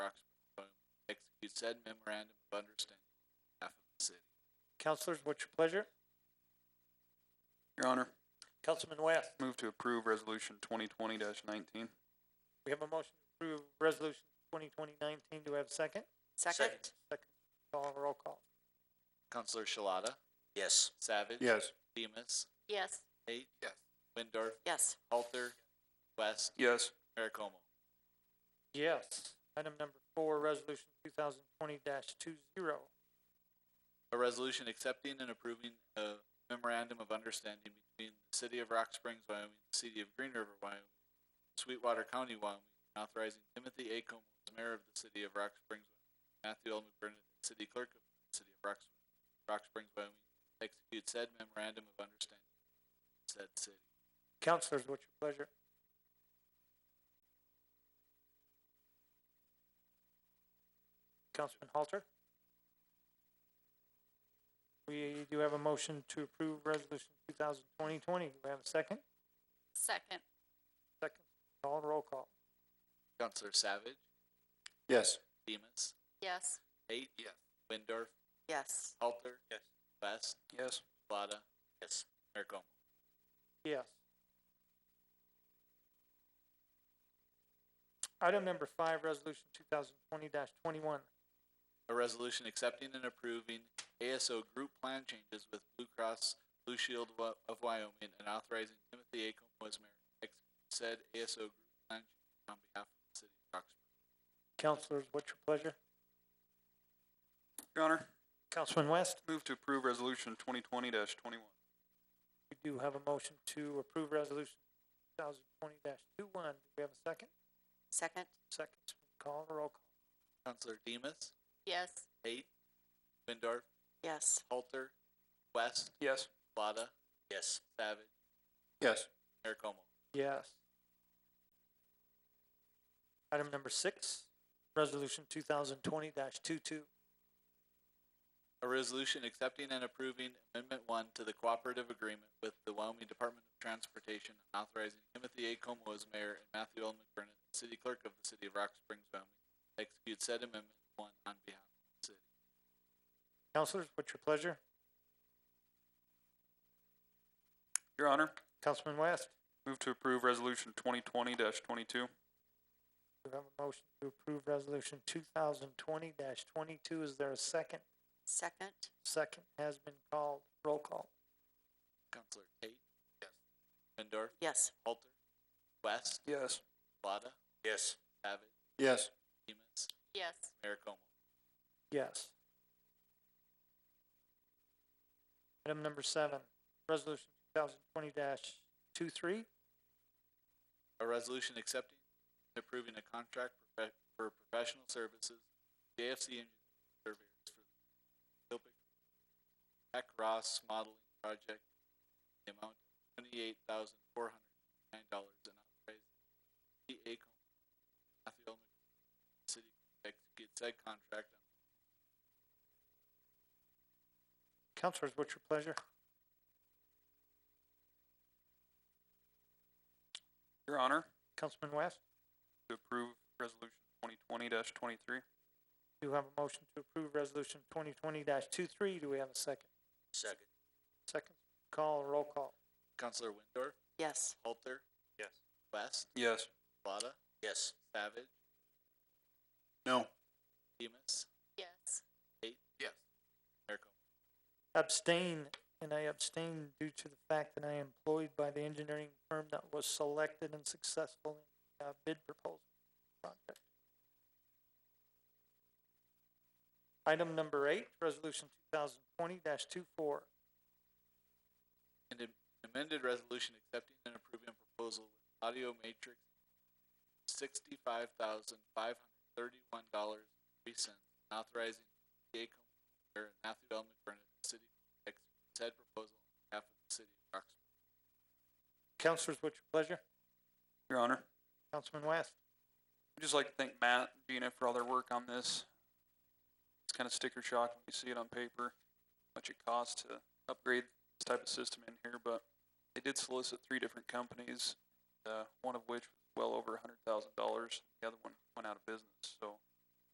said memorandum of understanding on behalf of the city. Councilors, what's your pleasure? Your Honor, Councilman West, move to approve resolution twenty twenty nineteen. we have a motion to approve resolution twenty twenty nineteen. Do we have a second? Second? Call, roll call. Counselor Shalata? Yes. Savage? Yes. Demus? Yes. Tate? Yes. Windor? Yes. Halter? West? Yes. Merricomo? Yes. Item number four, resolution two thousand twenty dash two zero. A resolution accepting and approving a memorandum of understanding between the city of Rock Springs, Wyoming, and the city of Green River, Wyoming, Sweetwater County, Wyoming, and authorizing Timothy A. Como as mayor of the city of Rock Springs, Wyoming, Matthew L. McBurnett, as city clerk of the city of Rock, Springs- Rock Springs, Wyoming, to execute said memorandum of understanding with said city. Councilors, what's your pleasure? Councilman Halter? We do have a motion to approve resolution two thousand twenty twenty. Do we have a second? Second? Second. Call, roll call. Counselor Savage, Yes. Demus, Yes. Tate. Yes. Windor, Yes. Halter. Yes. West, Yes. Shalata. Yes. Merricomo. Yes. Item number five, resolution two thousand twenty twenty-one. A resolution accepting and approving ASO group plan changes with Blue Cross Blue Shield of Wy- of Wyoming and authorizing Timothy A. Como as mayor to execute said ASO group plan changes on behalf of the city of Rock Springs. Councilors, what's your pleasure? Your Honor, Councilman West? move to approve resolution twenty twenty twenty-one. We do have a motion to approve resolution two thousand twenty dash two one. Do we have a second? Second? Seconds, call, roll call. Counselor Demas, Yes. Tate, Windor, Yes. Halter, West, Yes. Shalata. Yes. Savage, Yes. Mayor Como. Yes. Item number six, resolution two thousand twenty dash two two. A resolution accepting and approving Amendment One to the cooperative agreement with the Wyoming Department of Transportation and authorizing Timothy A. Como as mayor and Matthew L. McBurnett, city clerk of the city of Rock Springs, Wyoming, to execute said Amendment One on behalf of the city. Councilors, what's your pleasure? Your Honor, Councilman West, move to approve resolution twenty twenty twenty-two. we have a motion to approve resolution two thousand twenty dash twenty-two. Is there a second? Second? Second has been called. Roll call. Counselor Tate? Yes. Windor? Yes. Halter? West? Yes. Shalata? Yes. Savage? Yes. Demus? Yes. Mayor Como? Yes. Item number seven, resolution two thousand twenty dash two three. A resolution accepting and approving a contract profe- for professional services, JFC Engineering Surveyors for the Kilpick Mac Ross Modeling Project, the amount of twenty-eight thousand four hundred nine dollars and authorizing the AECO, Matthew L. McBurney, City to execute said contract on Counselors, what's your pleasure? Your Honor, Councilman West, to approve resolution twenty twenty twenty-three. do you have a motion to approve resolution twenty twenty dash two three? Do we have a second? Second. Second, call, roll call. Counselor Windor, Yes. Halter. Yes. West, Yes. Shalata. Yes. Savage, No. Demus, Yes. Tate. Yes. Mayor Como. Abstain, and I abstain due to the fact that I am employed by the engineering firm that was selected and successful in uh, bid proposal project. Item number eight, resolution two thousand twenty dash two four. and am- amended resolution accepting and approving a proposal with Audio Matrix sixty-five thousand five hundred thirty-one dollars three cents, authorizing DA Commissioner Matthew L. McBurnett, the city to execute said proposal on behalf of the city of Roxbury. Counselors, what's your pleasure? Your Honor, Councilman West? I'd just like to thank Matt, and Gina for all their work on this. It's kind of sticker shock when you see it on paper, how much it costs to upgrade this type of system in here, but they did solicit three different companies, uh, one of which was well over a hundred thousand dollars. The other one went out of business, so